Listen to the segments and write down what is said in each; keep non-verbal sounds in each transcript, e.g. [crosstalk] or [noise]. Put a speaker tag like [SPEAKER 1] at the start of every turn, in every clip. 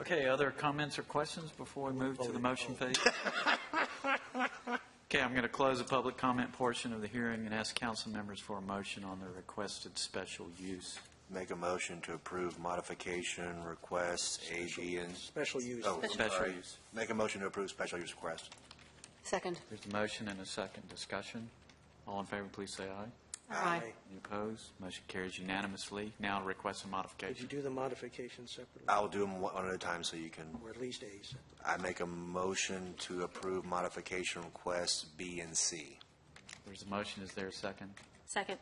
[SPEAKER 1] Okay, other comments or questions before we move to the motion phase? Okay, I'm going to close the public comment portion of the hearing and ask council members for a motion on the requested special use.
[SPEAKER 2] Make a motion to approve modification requests A, B, and,
[SPEAKER 3] Special use.
[SPEAKER 2] oh, I'm
[SPEAKER 1] Special
[SPEAKER 2] sorry.
[SPEAKER 1] use.
[SPEAKER 2] Make a motion to approve special use requests.
[SPEAKER 4] Second.
[SPEAKER 1] There's a motion and a second discussion. All in favor, please say aye.
[SPEAKER 4] Aye.
[SPEAKER 1] Any opposed? Motion carries unanimously. Now request a
[SPEAKER 3] Did you
[SPEAKER 1] modification.
[SPEAKER 3] do the modification separately,
[SPEAKER 2] I'll do them one at a time so you can,
[SPEAKER 3] or at least A's?
[SPEAKER 2] I make a motion to approve modification requests B and C.
[SPEAKER 1] There's a motion, is there a second?
[SPEAKER 4] Second.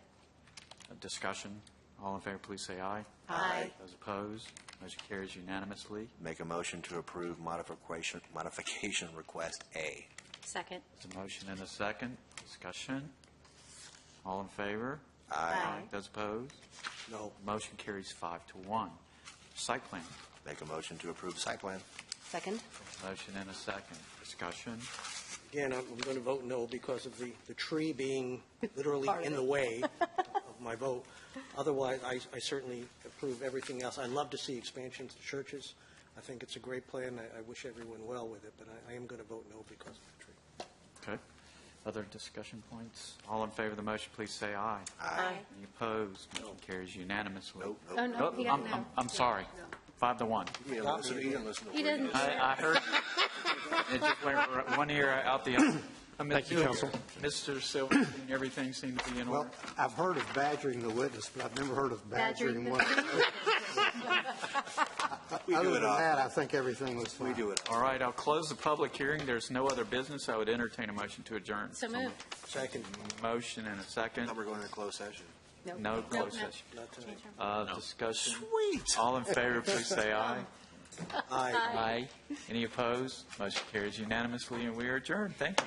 [SPEAKER 1] A Discussion. All in favor, please say aye.
[SPEAKER 4] Aye.
[SPEAKER 1] Those opposed? Motion carries unanimously.
[SPEAKER 2] Make a motion to approve modification, [laughs] modification request A.
[SPEAKER 4] Second.
[SPEAKER 1] There's a motion and a second. Discussion. All in favor?
[SPEAKER 4] Aye.
[SPEAKER 1] Those opposed?
[SPEAKER 3] No.
[SPEAKER 1] Motion carries five to one. Site plan.
[SPEAKER 2] Make a motion to approve site plan.
[SPEAKER 4] Second.
[SPEAKER 1] Motion and a second. Discussion.
[SPEAKER 3] Again, I'm going to vote no because of the, the tree being literally
[SPEAKER 4] Part of
[SPEAKER 3] in
[SPEAKER 4] it.
[SPEAKER 3] the
[SPEAKER 4] [laughs]
[SPEAKER 3] way of my vote. Otherwise, I, I certainly approve everything else. I love to see expansions to churches. I think it's a great plan. I, I wish everyone well with it, but I, I am going to vote no because of the tree.
[SPEAKER 1] Okay. Other discussion points? All in favor of the motion, please say aye.
[SPEAKER 4] Aye.
[SPEAKER 1] Any opposed? Motion carries unanimously.
[SPEAKER 2] Nope,
[SPEAKER 4] Oh,
[SPEAKER 2] nope.
[SPEAKER 4] no,
[SPEAKER 1] Oh,
[SPEAKER 4] he
[SPEAKER 1] I'm-
[SPEAKER 4] got no.
[SPEAKER 1] I'm- I'm sorry. Five to one.
[SPEAKER 2] You didn't listen- you didn't listen to
[SPEAKER 4] He
[SPEAKER 2] what
[SPEAKER 4] didn't.
[SPEAKER 1] I, I heard, [laughs] it just went r- one ear out the other. Thank you, Council. Mr. Silverstein, everything seemed to be in
[SPEAKER 5] Well,
[SPEAKER 1] order.
[SPEAKER 5] I've heard of badgering the witness, but I've never heard of
[SPEAKER 4] Badgering
[SPEAKER 5] badgering
[SPEAKER 4] the-
[SPEAKER 5] one. Other
[SPEAKER 2] do it
[SPEAKER 5] than
[SPEAKER 2] often.
[SPEAKER 5] that, uh, I think everything was
[SPEAKER 2] We
[SPEAKER 5] fine.
[SPEAKER 2] do it.
[SPEAKER 1] All right, I'll close the public hearing. There's no other business. I would entertain a motion to adjourn.
[SPEAKER 4] [laughs] So moved.
[SPEAKER 3] Second,
[SPEAKER 1] Motion and a second.
[SPEAKER 2] Now we're going to closed session.
[SPEAKER 1] No closed
[SPEAKER 4] no.
[SPEAKER 1] session.
[SPEAKER 3] not tonight.
[SPEAKER 1] Uh, Discussion. Sweet. All in favor, please
[SPEAKER 4] [laughs]
[SPEAKER 1] say aye.
[SPEAKER 3] Aye.
[SPEAKER 1] Aye. Any opposed? Motion carries unanimously, and we are adjourned. Thank you.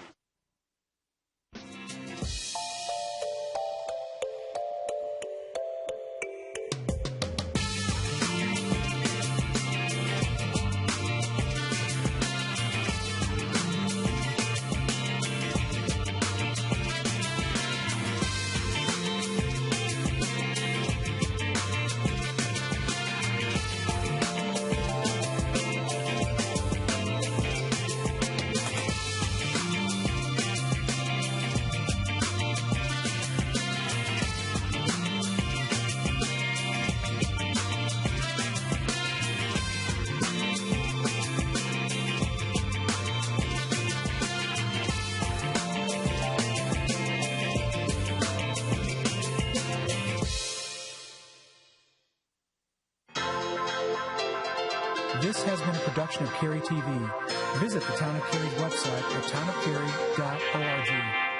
[SPEAKER 6] This has been a production of Cary TV. Visit the Town of Cary's website at townofcary.org.